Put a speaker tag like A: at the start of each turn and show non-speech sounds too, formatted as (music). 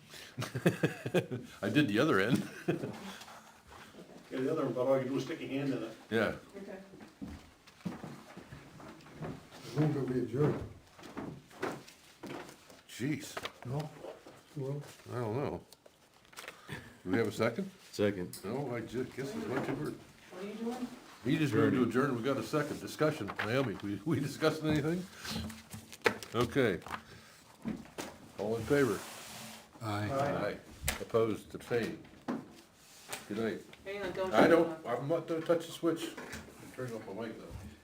A: (laughs) I did the other end,
B: Yeah, the other one, but all you do is stick your hand in it.
A: yeah.
C: Okay.
D: Move that we adjourn.
A: Jeez,
D: No? Well,
A: I don't know. Do we have a second?
E: Second.
A: No, I just guess it's what you were.
C: What are you doing?
A: He just moved to adjourn, we got a second discussion. Naomi, we, we discussing anything? Okay. All in favor?
D: aye.
A: Aye. Opposed, abstained. Good night.
C: Hang on, don't.
A: I
C: turn it
A: don't,
C: off.
A: I'm not gonna touch the switch. Turn off my mic though.